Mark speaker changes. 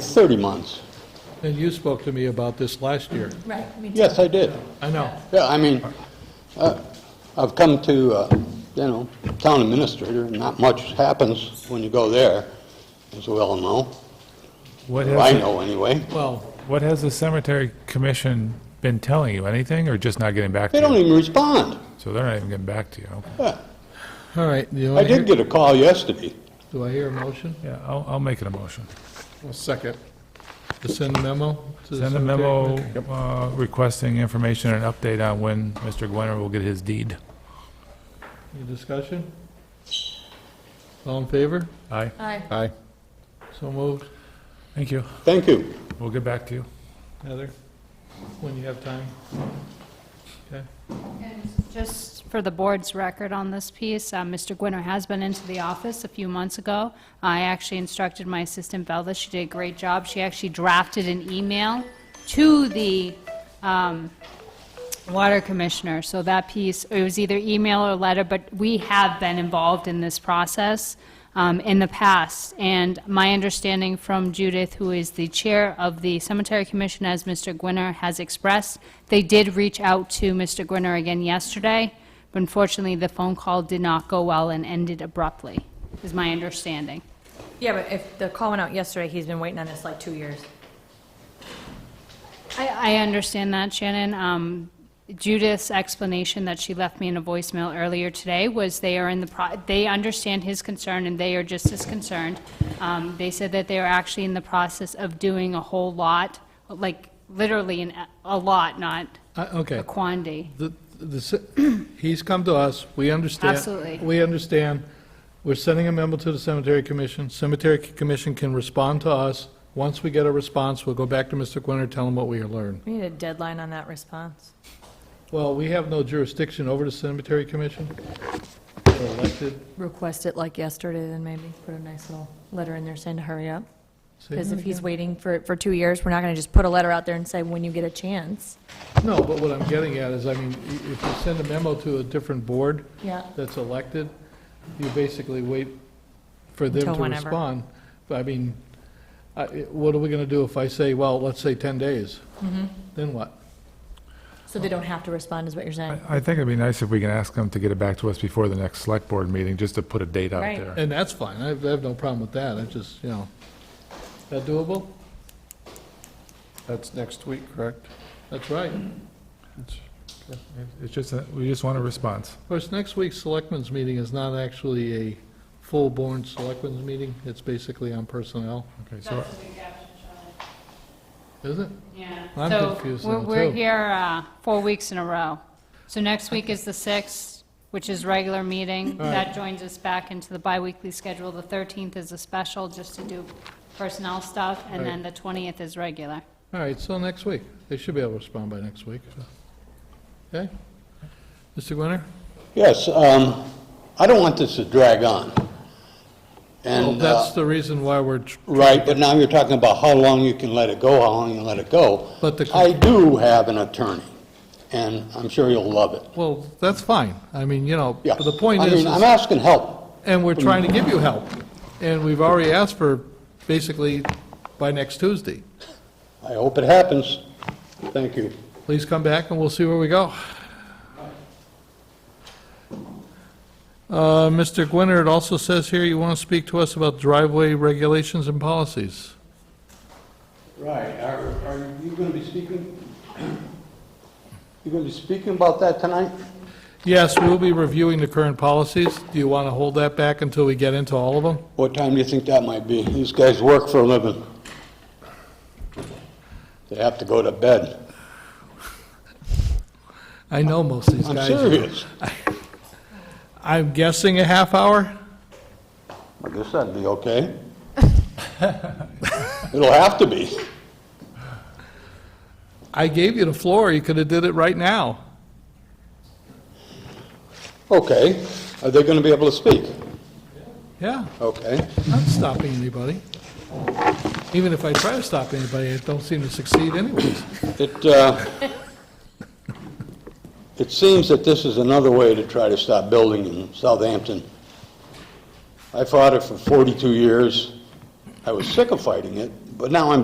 Speaker 1: 30 months.
Speaker 2: And you spoke to me about this last year.
Speaker 3: Right, me too.
Speaker 1: Yes, I did.
Speaker 2: I know.
Speaker 1: Yeah, I mean, uh, I've come to, uh, you know, town administrator, not much happens when you go there, as we all know,
Speaker 4: What
Speaker 1: or I
Speaker 4: has,
Speaker 1: know anyway.
Speaker 2: Well,
Speaker 4: what has the cemetery commission been telling you, anything, or just not getting back
Speaker 1: They
Speaker 4: to
Speaker 1: don't
Speaker 4: you?
Speaker 1: even respond.
Speaker 4: So they're not even getting back to you, okay.
Speaker 1: Yeah.
Speaker 2: all right. do you
Speaker 1: I
Speaker 2: wanna
Speaker 1: did
Speaker 2: hear-
Speaker 1: get a call yesterday.
Speaker 2: Do I hear a motion?
Speaker 4: Yeah, I'll, I'll make it a motion.
Speaker 2: second. To send a memo? to the
Speaker 4: Send a
Speaker 2: cemetery
Speaker 4: memo
Speaker 2: committee?
Speaker 4: uh, requesting information and update on when Mr. Gwenner will get his deed.
Speaker 2: Any discussion? All in favor?
Speaker 4: Aye,
Speaker 3: Aye.
Speaker 5: Aye.
Speaker 2: So moved.
Speaker 4: thank you.
Speaker 1: Thank you.
Speaker 4: We'll get back to you.
Speaker 2: Heather, when you have time. Okay.
Speaker 6: Just for the board's record on this piece, uh, Mr. Gwinner has been into the office a few months ago. I actually instructed my assistant Velda, she did a great job. She actually drafted an email to the um, water commissioner, so that piece, it was either email or letter, but we have been involved in this process um, in the past. And my understanding from Judith, who is the chair of the Cemetery Commission, as Mr. Gwinner has expressed, they did reach out to Mr. Gwinner again yesterday, but unfortunately, the phone call did not go well and ended abruptly, is my understanding.
Speaker 3: Yeah, but if the call went out yesterday, he's been waiting on this like two years.
Speaker 6: I, I understand that, Shannon. Um, Judith's explanation that she left me in a voicemail earlier today was they are in the, pro- they understand his concern and they are just as concerned. Um, They said that they are actually in the process of doing a whole lot, like literally an, a lot, not
Speaker 2: I- Okay.
Speaker 6: a quantity.
Speaker 2: The- the ce- He's come to us, we understand.
Speaker 6: Absolutely.
Speaker 2: We understand. We're sending a memo to the Cemetery Commission. Cemetery C- Commission can respond to us. Once we get a response, we'll go back to Mr. Quinter, tell him what we learned.
Speaker 3: We need a deadline on that response.
Speaker 2: Well, we have no jurisdiction over the Cemetery Commission. We're elected.
Speaker 3: Request it like yesterday, then maybe put a nice little letter in there saying to hurry up.
Speaker 2: Say
Speaker 3: Because
Speaker 2: that
Speaker 3: if he's waiting for, for two years, we're not going to just put a letter out there and say, when you get a chance.
Speaker 2: No, but what I'm getting at is, I mean, i- if you send a memo to a different board
Speaker 3: Yeah.
Speaker 2: that's elected, you basically wait for them
Speaker 3: Until
Speaker 2: to
Speaker 3: whenever.
Speaker 2: respond. But I mean, I- it- what are we going to do if I say, well, let's say 10 days?
Speaker 3: Mm-hmm.
Speaker 2: Then what?
Speaker 3: So they don't have to respond, is what you're saying?
Speaker 4: I I think it'd be nice if we can ask them to get it back to us before the next select board meeting, just to put a date out
Speaker 3: Right.
Speaker 4: there.
Speaker 2: And that's fine, I have I have no problem with that, I just, you know, is that doable?
Speaker 5: That's next week, correct?
Speaker 2: That's right.
Speaker 4: It's just, that we just want a response.
Speaker 2: Of course, next week's selectmen's meeting is not actually a full-born selectmen's meeting, it's basically on personnel,
Speaker 4: Okay, so
Speaker 2: is it?
Speaker 6: Yeah.
Speaker 2: I'm confused
Speaker 6: So we're-
Speaker 2: now,
Speaker 6: we're
Speaker 2: too.
Speaker 6: here uh, four weeks in a row. So next week is the 6th, which is regular meeting.
Speaker 2: All right.
Speaker 6: That joins us back into the biweekly schedule. The 13th is a special, just to do personnel stuff, and then the 20th is regular.
Speaker 2: All right, so next week, they should be able to respond by next week. Okay? Mr. Gwinner?
Speaker 1: Yes, um, I don't want this to drag on.
Speaker 2: Well,
Speaker 1: And,
Speaker 2: that's
Speaker 1: uh,
Speaker 2: the reason why we're, tr-
Speaker 1: right, but now you're talking about how long you can let it go, how long you let it go.
Speaker 2: But the-
Speaker 1: I do have an attorney, and I'm sure you'll love it.
Speaker 2: well, that's fine. I mean, you know,
Speaker 1: Yeah.
Speaker 2: but the point
Speaker 1: I
Speaker 2: is,
Speaker 1: mean, I'm
Speaker 2: is-
Speaker 1: asking help.
Speaker 2: and we're trying to give you help, and we've already asked for, basically, by next Tuesday.
Speaker 1: I hope it happens. Thank you.
Speaker 2: Please come back and we'll see where we go. Uh, Mr. Gwinner, it also says here you want to speak to us about driveway regulations and policies.
Speaker 1: Right, are, are you going to be speaking, you going to be speaking about that tonight?
Speaker 2: Yes, we'll be reviewing the current policies. Do you want to hold that back until we get into all of them?
Speaker 1: What time do you think that might be? These guys work for a living. They have to go to bed.
Speaker 2: I know most of these
Speaker 1: I'm
Speaker 2: guys.
Speaker 1: serious.
Speaker 2: I'm guessing a half hour?
Speaker 1: I guess that'd be okay. It'll have to be.
Speaker 2: I gave you the floor, you could have did it right now.
Speaker 1: Okay, are they going to be able to speak?
Speaker 2: Yeah,
Speaker 1: Okay,
Speaker 2: I'm not stopping anybody. Even if I try to stop anybody, I don't seem to succeed anyways.
Speaker 1: it, uh, it seems that this is another way to try to stop building in Southampton. I fought it for 42 years. I was sick of fighting it, but now I'm